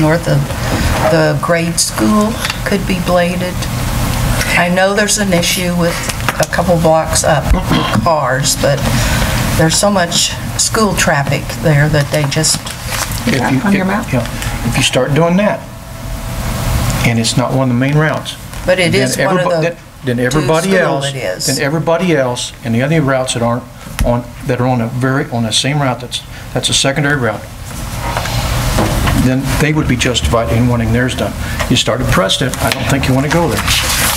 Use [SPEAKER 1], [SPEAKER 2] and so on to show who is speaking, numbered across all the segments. [SPEAKER 1] north of the grade school could be bladed. I know there's an issue with a couple blocks up with cars, but there's so much school traffic there that they just,
[SPEAKER 2] Is
[SPEAKER 3] If
[SPEAKER 2] that
[SPEAKER 3] you-
[SPEAKER 2] on your
[SPEAKER 3] if-
[SPEAKER 2] map?
[SPEAKER 3] yeah. If you start doing that, and it's not one of the main routes.
[SPEAKER 1] But it
[SPEAKER 3] then
[SPEAKER 1] is one of
[SPEAKER 3] everybo-
[SPEAKER 1] the
[SPEAKER 3] then- Then
[SPEAKER 1] to
[SPEAKER 3] everybody
[SPEAKER 1] school
[SPEAKER 3] else.
[SPEAKER 1] it is.
[SPEAKER 3] Then everybody else, and the other routes that aren't on, that are on a very, on the same route, that's, that's a secondary route, then they would be justified in wanting theirs done. You start at Preston, I don't think you want to go there.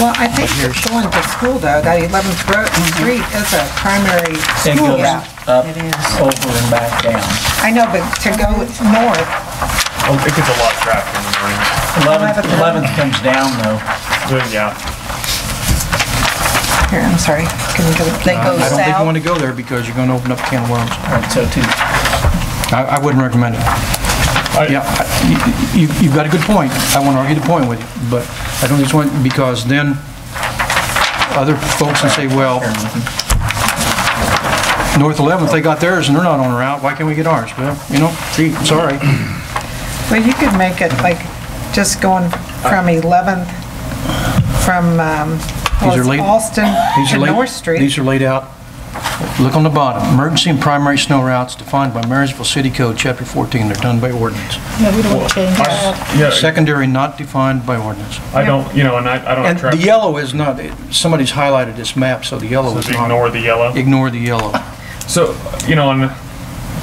[SPEAKER 2] Well, I think going to school though, that 11th Road and Street is a primary
[SPEAKER 4] It
[SPEAKER 2] school
[SPEAKER 4] goes
[SPEAKER 2] route.
[SPEAKER 4] up,
[SPEAKER 1] It is.
[SPEAKER 4] over and back down.
[SPEAKER 2] I know, but to go north,
[SPEAKER 5] Oh, It gets a lot of traffic in the morning.
[SPEAKER 4] Eleventh, eleventh comes down though.
[SPEAKER 5] Then, Yeah.
[SPEAKER 2] here, I'm sorry, can we go,
[SPEAKER 1] they go
[SPEAKER 3] I don't think you want
[SPEAKER 1] south.
[SPEAKER 3] to go there because you're going to open up a can of worms.
[SPEAKER 4] All right, so two.
[SPEAKER 3] I, I wouldn't recommend it. Yeah, I- you, you- you've got a good point. I won't argue the point with you, but I don't just want, because then other folks can say, well, North 11th, they got theirs and they're not on a route, why can't we get ours? Well, you know, gee, sorry.
[SPEAKER 2] well, you could make it like, just going from 11th, from, um,
[SPEAKER 3] Uh, These are
[SPEAKER 2] well, it's
[SPEAKER 3] late-
[SPEAKER 2] Alston
[SPEAKER 3] These are
[SPEAKER 2] to
[SPEAKER 3] laid-
[SPEAKER 2] North Street.
[SPEAKER 3] These are laid out. Look on the bottom, emergency and primary snow routes defined by Marysville City Code, Chapter 14, they're done by ordinance.
[SPEAKER 6] Yeah, we don't change that.
[SPEAKER 5] Yeah,
[SPEAKER 3] Secondary not defined by ordinance.
[SPEAKER 5] I don't, you know, and I, I
[SPEAKER 3] And
[SPEAKER 5] don't have
[SPEAKER 3] the
[SPEAKER 5] traffic,
[SPEAKER 3] yellow is not, somebody's highlighted this map, so the yellow
[SPEAKER 5] so
[SPEAKER 3] is
[SPEAKER 5] just
[SPEAKER 3] not.
[SPEAKER 5] ignore the yellow.
[SPEAKER 3] Ignore the yellow.
[SPEAKER 5] So, you know, on,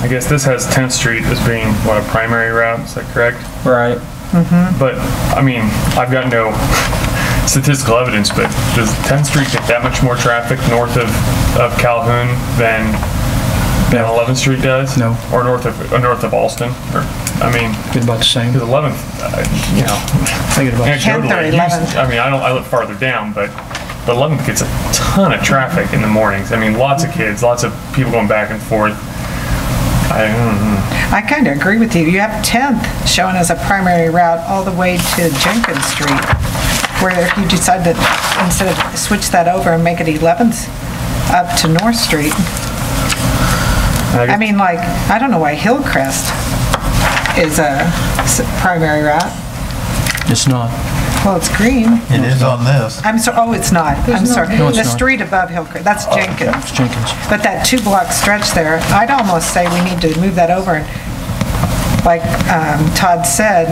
[SPEAKER 5] I guess this has 10th Street as being, what, a primary route, is that correct?
[SPEAKER 4] Right.
[SPEAKER 5] But, I mean, I've got no statistical evidence, but does 10th Street get that much more traffic north of, of Calhoun than, than
[SPEAKER 3] No.
[SPEAKER 5] 11th Street does?
[SPEAKER 3] No.
[SPEAKER 5] Or north of, or north of Alston, or, I mean,
[SPEAKER 3] Get about the same.
[SPEAKER 5] because 11th, uh, you know,
[SPEAKER 3] Think it about,
[SPEAKER 5] Anecdotally,
[SPEAKER 2] 10th or
[SPEAKER 5] it used-
[SPEAKER 2] 11th.
[SPEAKER 5] I mean, I don't, I live farther down, but the 11th gets a ton of traffic in the mornings. I mean, lots of kids, lots of people going back and forth. I, mm,
[SPEAKER 2] I kind of agree with you. You have 10th shown as a primary route all the way to Jenkins Street, where if you decide to, instead of switch that over and make it 11th up to North Street, I mean, like, I don't know why Hillcrest is a s- primary route.
[SPEAKER 3] it's not.
[SPEAKER 2] Well, it's green.
[SPEAKER 7] It is on this.
[SPEAKER 2] I'm sorry, oh, it's not. I'm sorry.
[SPEAKER 3] No, it's
[SPEAKER 2] The
[SPEAKER 3] not. Oh,
[SPEAKER 2] street above Hillcrest, that's Jenkins.
[SPEAKER 3] It's Jenkins.
[SPEAKER 2] But that two-block stretch there, I'd almost say we need to move that over. and Like um, Todd said,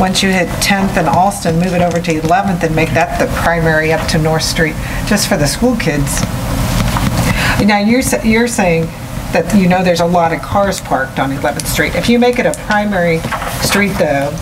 [SPEAKER 2] once you hit 10th and Alston, move it over to 11th and make that the primary up to North Street, just for the school kids. Now, you're, sa- you're saying that you know there's a lot of cars parked on 11th Street. If you make it a primary street, though,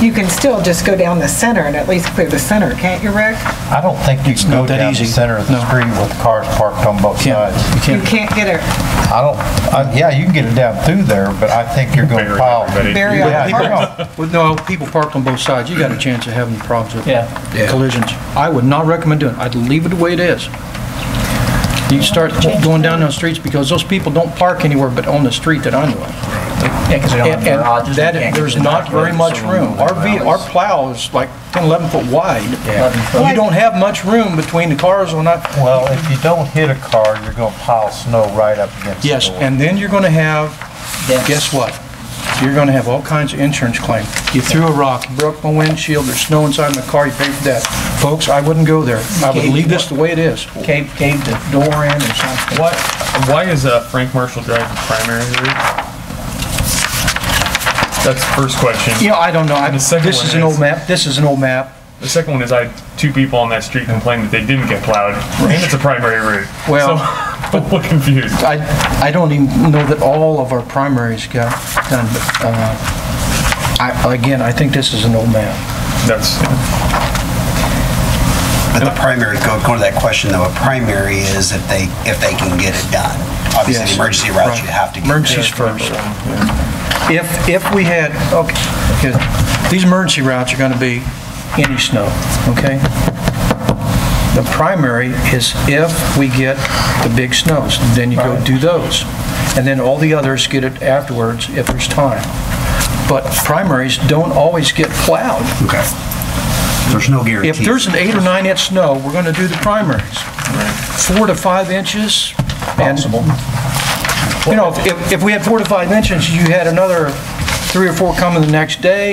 [SPEAKER 2] you can still just go down the center and at least clear the center, can't you, Rick?
[SPEAKER 7] I don't think you can
[SPEAKER 3] not
[SPEAKER 7] go
[SPEAKER 3] that
[SPEAKER 7] down the
[SPEAKER 3] easy.
[SPEAKER 7] center of the
[SPEAKER 3] No.
[SPEAKER 7] street with cars parked on both
[SPEAKER 3] Can't-
[SPEAKER 7] sides.
[SPEAKER 3] you
[SPEAKER 2] You
[SPEAKER 3] can't-
[SPEAKER 2] can't get a
[SPEAKER 7] I don't, I- yeah, you can get it down through there, but I think you're going to
[SPEAKER 5] Bury
[SPEAKER 7] pile.
[SPEAKER 5] everybody.
[SPEAKER 2] bury all
[SPEAKER 7] Yeah,
[SPEAKER 2] the
[SPEAKER 7] you're
[SPEAKER 2] cars.
[SPEAKER 7] gonna-
[SPEAKER 3] Well, no, people parked on both sides, you got a chance of having problems with
[SPEAKER 4] Yeah.
[SPEAKER 3] collisions. I would not recommend doing it. I'd leave it the way it is. You start going down those streets because those people don't park anywhere but on the street that I know of.
[SPEAKER 4] Yeah, because they don't
[SPEAKER 3] And
[SPEAKER 4] have garages.
[SPEAKER 3] and
[SPEAKER 4] they
[SPEAKER 3] that,
[SPEAKER 4] can't get
[SPEAKER 3] there's
[SPEAKER 4] to the
[SPEAKER 3] not very
[SPEAKER 4] backyards,
[SPEAKER 3] much
[SPEAKER 4] so
[SPEAKER 3] room. Our, ve- our
[SPEAKER 4] alleys.
[SPEAKER 3] plow is like 10, 11 foot wide.
[SPEAKER 4] Eleven foot.
[SPEAKER 3] You don't have much room between the cars on that,
[SPEAKER 7] Well, if you don't hit a car, you're going to pile snow right up against the door.
[SPEAKER 3] Yes, and then you're going to have,
[SPEAKER 4] Dents.
[SPEAKER 3] guess what? You're going to have all kinds of insurance claims. You threw a rock, you broke my windshield, there's snow inside my car, you paid for that. Folks, I wouldn't go there. I would leave this the way it is.
[SPEAKER 4] Cave, cave the door in or something.
[SPEAKER 5] Why, why is uh, Frank Marshall Drive the primary route? That's the first
[SPEAKER 3] You
[SPEAKER 5] question.
[SPEAKER 3] know, I don't know, I-
[SPEAKER 5] The second
[SPEAKER 3] this
[SPEAKER 5] one
[SPEAKER 3] is an
[SPEAKER 5] is-
[SPEAKER 3] old map, this is an old map.
[SPEAKER 5] The second one is I had two people on that street complained that they didn't get plowed, and it's a primary route.
[SPEAKER 3] Well,
[SPEAKER 5] So, I'm a little confused.
[SPEAKER 3] I, I don't even know that all of our primaries got done, but, uh, I, again, I think this is an old map.
[SPEAKER 5] That's,
[SPEAKER 8] But the primary, go, go to that question though, a primary is if they, if they can get it done. Obviously,
[SPEAKER 3] Yes.
[SPEAKER 8] the emergency routes, you
[SPEAKER 3] Right.
[SPEAKER 8] have to get.
[SPEAKER 3] Emergencies first. If, if we had, okay, okay, these emergency routes are gonna be any snow, okay? The primary is if we get the big snows, then you go do those. And then all the others get it afterwards if there's time. But primaries don't always get plowed.
[SPEAKER 8] Okay. There's no guarantee.
[SPEAKER 3] If there's an eight or nine inch snow, we're gonna do the primaries. Four to five inches and
[SPEAKER 4] Possible.
[SPEAKER 3] you know, if, if we had four to five inches, you had another three or four coming the next day,